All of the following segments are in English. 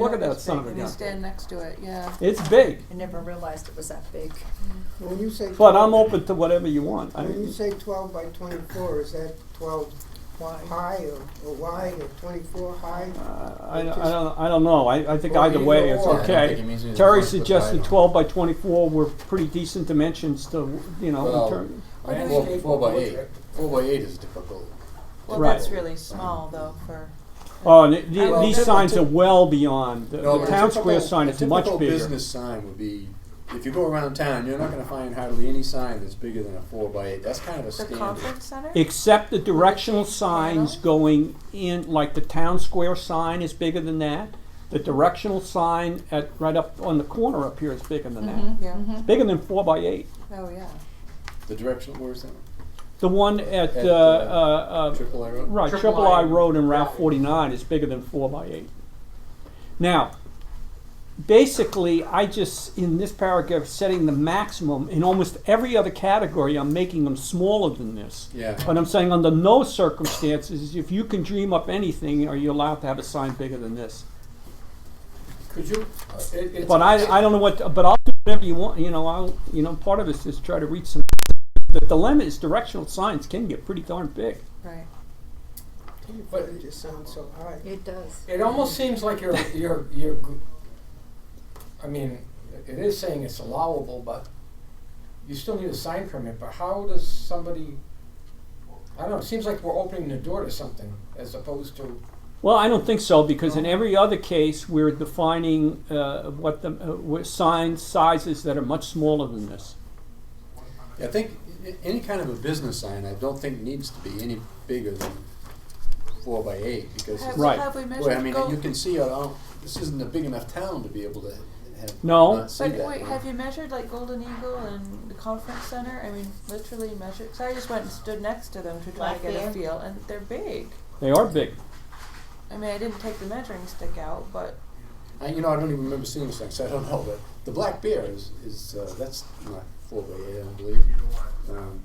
Look at Yeah, that it's son of a big. When you gun. stand next to it, yeah. It's big, I never realized it was that big. When you say. but I'm open to whatever you want. I When you mean, say twelve by twenty-four, is that twelve Why? high or, or wide or twenty-four high? uh, I, I don't, I don't know. I, I think Well, either either way it's or. I don't think okay. it means either Terry one, but suggested I- twelve by twenty-four were pretty decent dimensions to, you know, Well, in terms. I mean, Or do four, we- four by eight. Four by eight is difficult. Well, Right. that's really small though for. Oh, and it- the- Well, these typ- signs typ- are well beyond, the No, the but a town typical- square sign a is much typical bigger. business sign would be, if you go around town, you're not gonna find hardly any sign that's bigger than a four by eight. That's kind of a The standard. conference center? Except the directional signs going in, like the town square sign is bigger than that. The directional sign at, right up on the corner up here is bigger than that. Yeah, It's bigger than four by eight. Mm-hmm, oh, yeah. The directional, where's that? The one at, At, uh, uh, uh, uh, Triple arrow? right, Triple Triple I I Road and Route Route. forty-nine is bigger than four by eight. Now, basically, I just, in this paragraph, setting the maximum, in almost every other category, I'm making them smaller than this. Yeah. But I'm saying under no circumstances, if you can dream up anything, are you allowed to have a sign bigger than this? Could you, uh, it, it's. But I, I don't know what, but I'll do whatever you want, you know, I'll, you know, part of it's just try to reach some, the dilemma is directional signs can get pretty darn big. Right. Twenty-four just sounds so high. It does. It almost seems like you're, you're, you're, g- I mean, it is saying it's allowable, but you still need a sign permit, but how does somebody, I don't know, it seems like we're opening the door to something as opposed to, Well, I don't think so, because Oh. in every other case, we're defining uh, what the, uh, what signs, sizes that are much smaller than this. I think i- any kind of a business sign, I don't think needs to be any bigger than four by eight because. it's- Have, Right. have we Boy, I measured mean, gold? you can see, it all this isn't a big enough town to be able to have, No. not see But that. wait, have you measured like Golden Eagle and the conference center? I mean, literally measured, because I just went and stood next to them to try to get a Blackbear. feel, and they're big. They are big. I mean, I didn't take the measuring stick out, but I, you know, I don't even remember seeing this thing, so I don't know. But the black bear is, is uh, that's not four by eight, I don't believe. Um,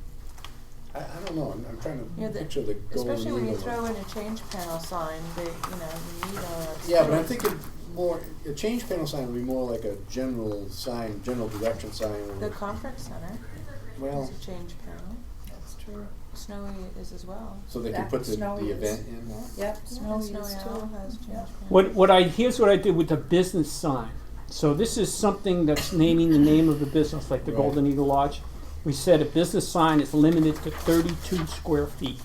I, I don't know. I'm, I'm trying to Yeah, the- picture the golden especially when you eagle. throw in a change panel sign, they, you know, you need uh, a. yeah, but I'm thinking more. A change panel sign would be more like a general sign, general direction sign. The Or, conference center well, is a change panel. That's true. Snowy is as well. so they could That put the, snowy the is- event in. Yep, Snowy, Snowy is Owl too. has change Yeah. panel. What, what I, here's what I did with the business sign. So this is something that's naming the name of the business, like the Right. Golden Eagle Lodge. We said a business sign is limited to thirty-two square feet.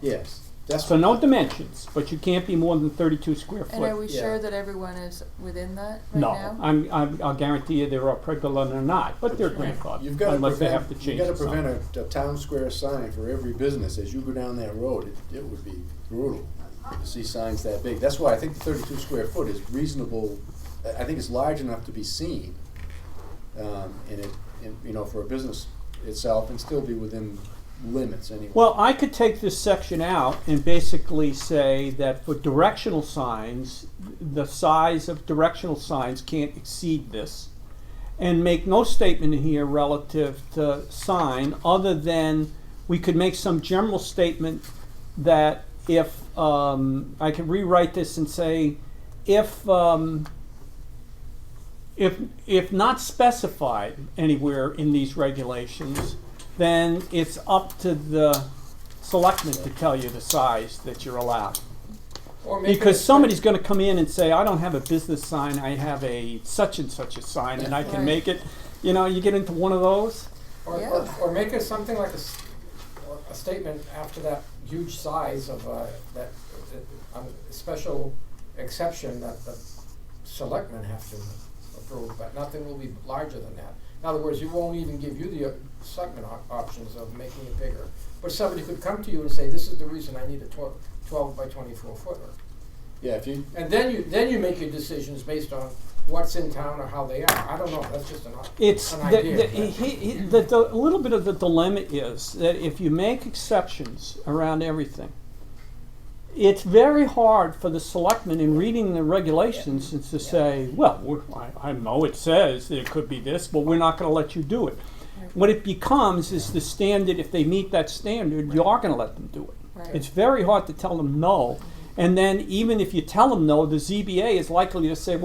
Yes, that's So no dimensions, but you can't be more than thirty-two square And are foot. we Yeah. sure that everyone is within that right No, now? I'm, I'm, I'll guarantee you there are people that are not, but they're You've grandfathered, got to unless prevent. they have to change you've got the to sign. prevent a, a town square sign for every business as you go down that road. It, it would be brutal to see signs that big. That's why I think the 32 square foot is reasonable. I I think it's large enough to be seen, um, and it, and, you know, for a business itself, and still be within limits anyway. Well, I could take this section out and basically say that for directional signs, the size of directional signs can't exceed this. And make no statement here relative to sign, other than we could make some general statement that if, um, I could rewrite this and say, if, um, if, if not specified anywhere in these regulations, then it's up to the selectmen to tell you the size that you're allowed. or maybe. Because it's- somebody's gonna come in and say, I don't have a business sign, I have a such and such a sign, and I can Right. make it, you know, you get into one of those. Or, or, Yeah. or make it something like a, s- or a statement after that huge size of, uh, that, uh, uh, a special exception that the selectmen have to approve, but nothing will be larger than that. In other words, you won't even give you the uh, selectmen op- options of making it bigger, but somebody could come to you and say, this is the reason I need a twelve, twelve by twenty-four footer. yeah, if you And then you, then you make your decisions based on what's in town or how they are, I don't know, that's just an, op- It's, an the, idea. the, but- he, he, the, the, a little bit of the dilemma is that if you make exceptions around everything, it's very hard for the selectmen in reading the regulations is to say, well, we're, I, I know it says that it could be this, but we're not gonna let you do it. What it becomes is the standard, if they meet that standard, you are gonna let them do it. Right. It's very hard to tell them no. And then even if you tell them no, the ZBA is likely to say,